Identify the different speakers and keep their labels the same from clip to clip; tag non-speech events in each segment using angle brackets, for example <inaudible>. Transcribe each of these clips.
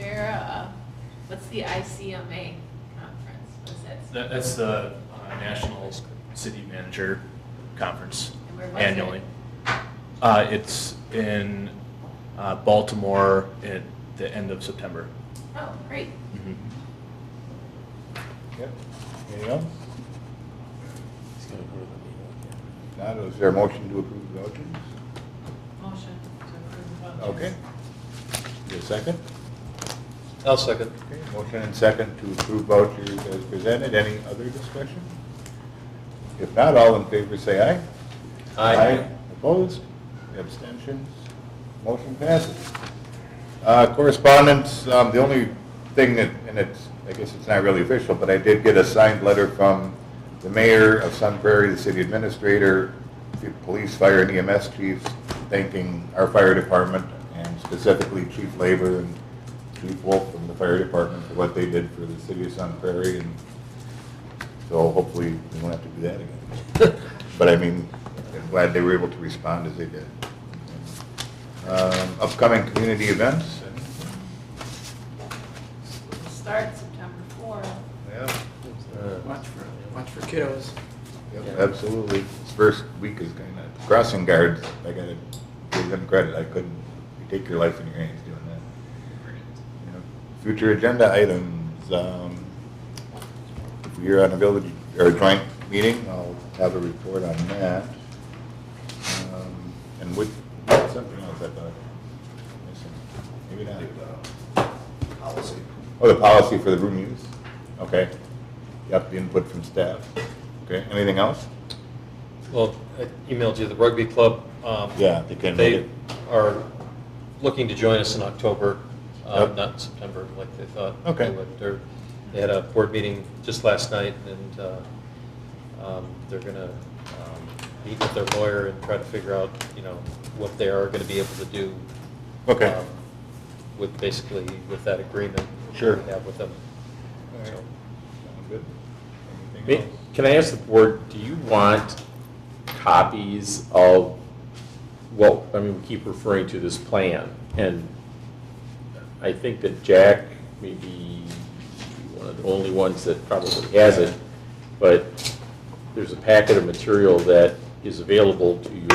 Speaker 1: uh, What's the ICMA conference? What's that?
Speaker 2: That, that's the uh, National City Manager Conference
Speaker 1: And where was it?
Speaker 2: annually. Uh, it's in uh, Baltimore at the end of September.
Speaker 1: Oh, great.
Speaker 3: Yep. Anything else? Not, is there a motion to approve the vouchers?
Speaker 1: Motion to approve the vouchers.
Speaker 3: Okay. Is there a second?
Speaker 4: I'll second.
Speaker 3: Okay, motion and second to approve vouchers as presented. Any other discussion? If not, all in favor say aye. Opposed? Abstentions? Motion passes. Uh, Correspondence, um, the only thing that, and it's, I guess it's not really official, but I did get a signed letter from the mayor of Sun Prairie, the city administrator, the police, fire, and EMS chiefs, thanking our fire department, and specifically Chief Labor and Chief Wolf from the fire department for what they did for the city of Sun Prairie, and so hopefully we won't have to do that again. But I mean, I'm glad they were able to respond as they did. Um, Upcoming community events?
Speaker 1: We'll Start September fourth.
Speaker 3: Yeah.
Speaker 5: Watch for, watch for kiddos.
Speaker 3: Absolutely. This first week is kind of, crossing guards, I gotta give them credit. I couldn't, you take your life in your hands doing that. Yeah. Future agenda items, um, if we're on a village, or a joint meeting, I'll have a report on that. Um, And with, something else I thought, missing. maybe not.
Speaker 4: Policy.
Speaker 3: Oh, the policy for the room use? Okay. Yep, the input from staff. Okay, anything else?
Speaker 4: Well, I emailed you, the rugby club. um,
Speaker 3: Yeah, they can make
Speaker 4: They
Speaker 3: it.
Speaker 4: are looking to join us in October, uh,
Speaker 3: Yep.
Speaker 4: not in September like they thought.
Speaker 3: Okay.
Speaker 4: They would. They're- They had a board meeting just last night, and uh, um, they're going to meet with their lawyer and try to figure out, you know, what they are going to be able to do.
Speaker 3: Okay.
Speaker 4: um, With, basically, with that agreement.
Speaker 3: Sure.
Speaker 4: We have with them. So-
Speaker 3: Anything
Speaker 6: May-
Speaker 3: else?
Speaker 6: Can I ask the board, do you want copies of, well, I mean, we keep referring to this plan, and I think that Jack may be one of the only ones that probably has it, but there's a packet of material that is available to you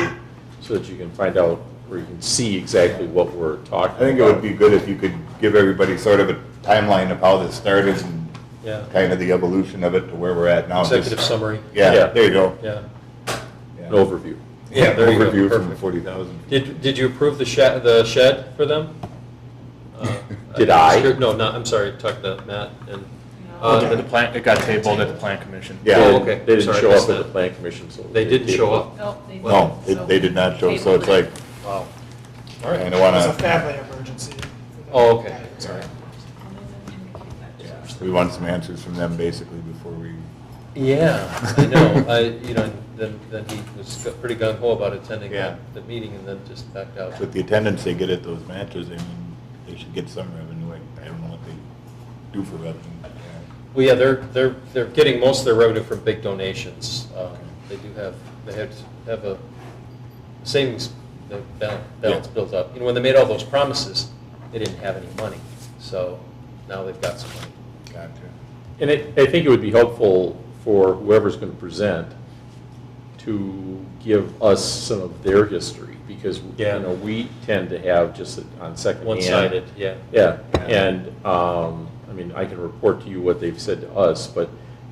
Speaker 6: so that you can find out, or you can see exactly what we're talking
Speaker 3: I
Speaker 6: about.
Speaker 3: think it would be good if you could give everybody sort of a timeline of how this started and
Speaker 4: Yeah.
Speaker 3: kind of the evolution of it to where we're at now. Just-
Speaker 4: Executive summary.
Speaker 3: Yeah,
Speaker 6: Yeah.
Speaker 3: there you go.
Speaker 4: Yeah.
Speaker 6: An overview.
Speaker 4: Yeah, there you go.
Speaker 3: Overview from
Speaker 4: Perfect.
Speaker 3: forty thousand.
Speaker 4: Did, did you approve the shed, the shed for them? Uh,
Speaker 6: Did I?
Speaker 4: No, not, I'm sorry, talk to Matt and.
Speaker 1: No.
Speaker 4: uh,
Speaker 2: The plan, it got tabled at the Plan Commission.
Speaker 3: Yeah.
Speaker 6: They
Speaker 4: Oh,
Speaker 6: didn't-
Speaker 4: okay.
Speaker 6: They didn't
Speaker 4: Sorry, I
Speaker 6: show
Speaker 4: missed
Speaker 6: up at the
Speaker 4: that.
Speaker 6: plan commission, so.
Speaker 4: They didn't show up?
Speaker 1: Nope, they didn't.
Speaker 3: No,
Speaker 1: So
Speaker 3: it- they did not show, so it's
Speaker 1: Table it.
Speaker 3: like,
Speaker 4: Wow. All
Speaker 3: kind
Speaker 4: right.
Speaker 3: of
Speaker 5: It was a
Speaker 3: want to,
Speaker 5: family emergency.
Speaker 4: Oh, okay,
Speaker 5: Sorry.
Speaker 4: sorry.
Speaker 1: And they didn't indicate that to us.
Speaker 3: we want some answers from them basically before we,
Speaker 4: Yeah, I know, I, you know, and then, then he was g- pretty gung ho about attending
Speaker 3: Yeah.
Speaker 4: that, the meeting and then just backed out.
Speaker 3: with the attendance they get at those matches, I mean, they should get some revenue. I I don't know what they do for revenue.
Speaker 4: Well, yeah, they're, they're, they're getting most of their revenue from big donations. Um, They do have, they have, have a savings ba- bal- balance
Speaker 3: Yeah.
Speaker 4: built up. You know, when they made all those promises, they didn't have any money, so now they've got some money.
Speaker 3: Gotcha.
Speaker 6: And I, I think it would be helpful for whoever's going to present to give us some of their history, because, you
Speaker 4: Yeah.
Speaker 6: know, we tend to have just it on second hand.
Speaker 4: One-sided, yeah.
Speaker 6: Yeah,
Speaker 3: Yeah.
Speaker 6: and, um, I mean, I can report to you what they've said to us, but,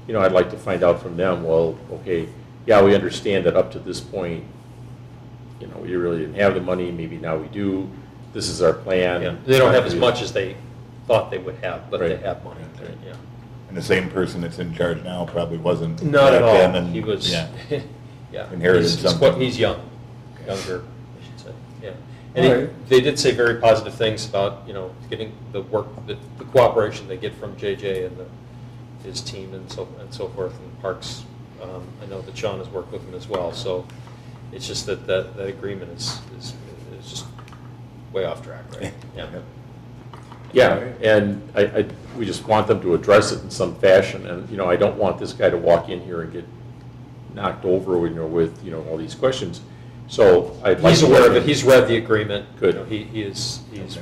Speaker 6: you know, I'd like to find out from them, well, okay, yeah, we understand that up to this point, you know, we really didn't have the money, maybe now we do, this is our
Speaker 4: Yeah,
Speaker 6: plan.
Speaker 4: They don't have as much as they thought they would have, but they
Speaker 6: Right.
Speaker 4: have money,
Speaker 3: Right.
Speaker 4: yeah.
Speaker 3: And the same person that's in charge now probably wasn't.
Speaker 4: Not at
Speaker 3: back then,
Speaker 4: all.
Speaker 3: and-
Speaker 4: He was,
Speaker 3: Yeah.
Speaker 4: <laughs> yeah.
Speaker 3: <laughs> Inherited
Speaker 4: He's- he's
Speaker 3: something.
Speaker 4: quite- He's young, younger, I should say, yeah. And
Speaker 3: All
Speaker 4: he-
Speaker 3: right.
Speaker 4: they did say very positive things about, you know, getting the work, the the cooperation they get from JJ and the- his team and so, and so forth, and Parks. um, I know that Sean has worked with him as well, so it's just that, that, that agreement is, is, is just way off track,
Speaker 3: <laughs>
Speaker 4: right? Yeah.
Speaker 3: Yep.
Speaker 6: Yeah, and I, I, we just want them to address it in some fashion, and, you know, I don't want this guy to walk in here and get knocked over, you know, with, you know, all these questions, so I'd like.
Speaker 4: He's
Speaker 6: to-
Speaker 4: aware of it, he's read the agreement. you
Speaker 6: Good.
Speaker 4: know, He, he is, he's